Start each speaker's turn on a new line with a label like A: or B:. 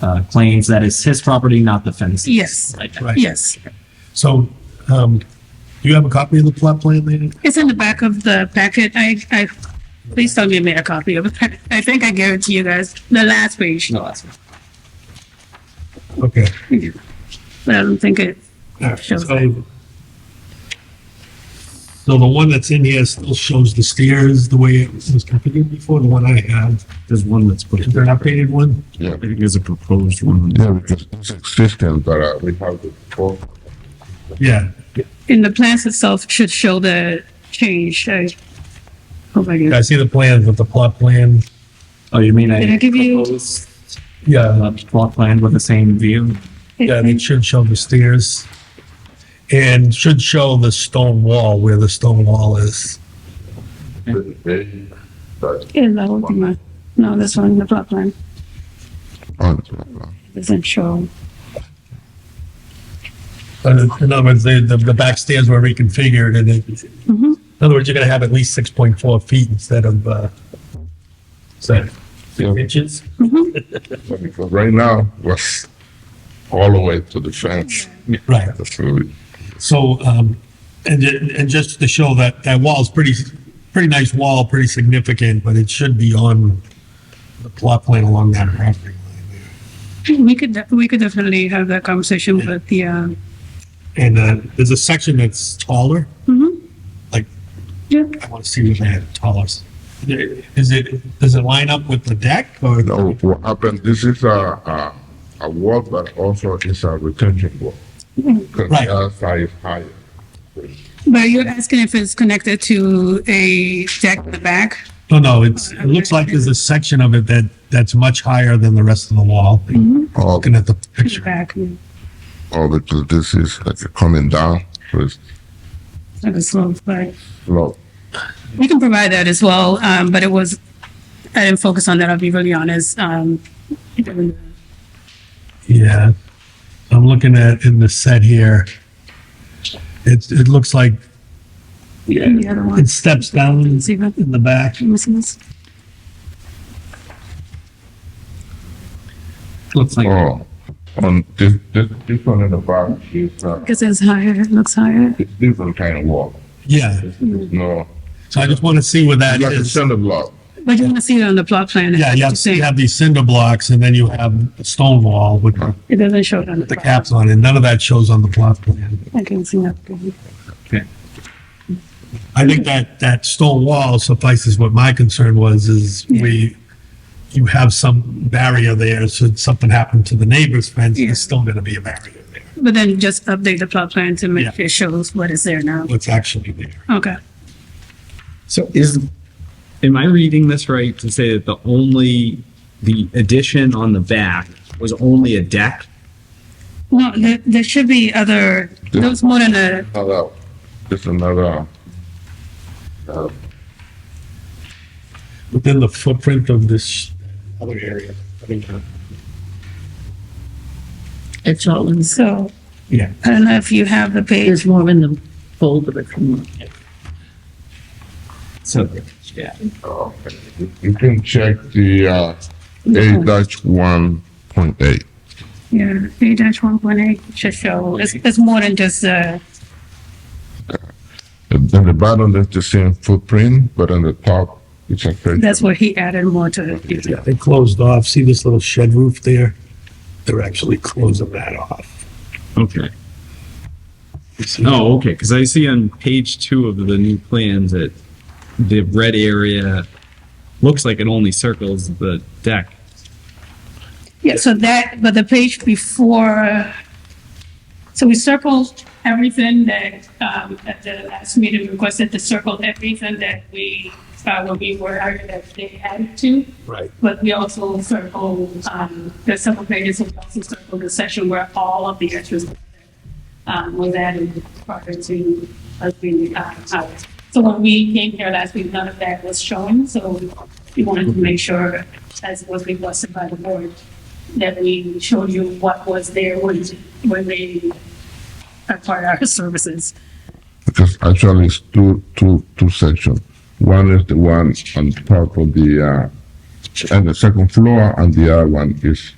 A: uh, claims that it's his property, not the fences.
B: Yes.
A: Like that.
C: Right.
B: Yes,
C: So, um, do you have a copy of the plot plan, Lena?
B: it's in the back of the packet. I, I, please tell me you made a copy of it. I think I gave it to you guys, the last page.
A: No, that's-
C: Okay.
B: But I don't think it,
C: So
B: Shows
C: so the one that's in here still shows the stairs the way it was configured before, the one I have.
D: There's one that's put,
C: Is there an updated one?
D: I think there's a proposed one.
E: Yeah, because it's existing, but uh, we have the four.
C: Yeah.
B: in the plans itself it should show the change. I hope I
C: I
B: can.
C: see the plans with the plot plan.
A: Oh, you mean
B: Did I
A: I
B: give you-
A: proposed
C: Yeah,
A: uh, plot plan with the same view?
C: yeah, it should show the stairs. And should show the stone wall, where the stone wall is.
E: But
B: Yeah, that would be my, no, this one, the plot plan
E: Oh, on,
B: doesn't show.
C: But In other words, the, the, the back stairs were reconfigured and it,
B: Mhm.
C: in other words, you're gonna have at least six point four feet instead of, uh, seven
E: Yeah.
C: inches.
B: Mm-hmm.
E: Because right now, was all the way to the fence.
C: Right.
E: That's really,
C: So, um, and, ju- and just to show that, that wall's pretty, pretty nice wall, pretty significant, but it should be on the plot plan along that property line.
B: We could, de- we could definitely have that conversation with the, uh,
C: And, uh, there's a section that's taller,
B: mhm.
C: like,
B: Yeah.
C: I want to see what that taller. s- Is it, does it line up with the deck or?
E: no, what happened, this is a, a, a wall, but also is a retention wall. Because
C: Right.
E: the other side is higher.
B: But you're asking if it's connected to a deck in the back?
C: No, no, it's, it looks like there's a section of it that, that's much higher than the rest of the wall.
E: All,
C: Looking at the
B: In the
C: picture.
B: back, yeah.
E: all Oh, because this is like coming down, so it's
B: Like a slope, right.
E: low.
B: We can provide that as well, um, but it was, I didn't focus on that, I'll be really honest. Um,
C: Yeah, I'm looking at in the set here. It's, it looks like
B: the other one,
C: it steps down
B: Let's see
C: in
B: if I-
C: the back.
B: am I missing this?
A: Looks like
E: Oh, on this, this, this one in the back is, uh,
B: Because it's higher, it looks higher.
E: it's different kind of wall.
C: Yeah,
E: No,
C: so I just want to see where that
E: it's like a
C: is.
E: cinder block.
B: But you want to see it on the plot plan.
C: Yeah, you have,
B: it's the
C: you
B: same.
C: have these cinder blocks and then you have a stone wall with
B: It doesn't show it on the.
C: the
B: plot.
C: caps on it. None of that shows on the plot plan.
B: I can see that.
C: I think that, that stone wall suffices what my concern was, is we, you have some barrier there, so if something happened to the neighbor's fence,
B: Yeah.
C: there's still gonna be a barrier there,
B: But then just update the plot plan to make
C: Yeah.
B: it shows what is there now.
C: what's actually there.
B: Okay.
D: So is, am I reading this right to say that the only, the addition on the back was only a deck?
B: No, there, there should be other, there was more than a,
E: Another, it's another, uh,
C: Within the footprint of this other area. I think, uh,
F: It's all in,
B: so
C: Yeah,
B: I don't know if you have the page.
F: there's more in the folder if you want.
D: So, yeah.
E: uh, you can check the, uh, A dash one point eight.
B: Yeah, A dash one point eight should show, it's, it's more than just, uh,
E: In the bottom, that's the same footprint, but on the top, it's a. section.
B: that's where he added more to it.
C: yeah, they closed off, see this little shed roof there? They're actually closing that off.
D: Okay.
C: You see?
D: Oh, okay, because I see on page two of the new plans that the red area looks like it only circles the deck.
B: Yeah, so that, but the page before, so we circled everything that, um, at the last meeting requested to circle everything that we, uh, when we were, hired that they added to.
C: Right.
B: But we also circled, um, there's several pages, we also circled the section where all of the extras um, was added prior to us being, uh, out. So when we came here last week, none of that was shown, so we wanted to make sure, as was requested by the board, that we showed you what was there when, when they acquired our services.
E: Because actually it's two, two, two sections. One is the one on top of the, uh, and the second floor, and the other one is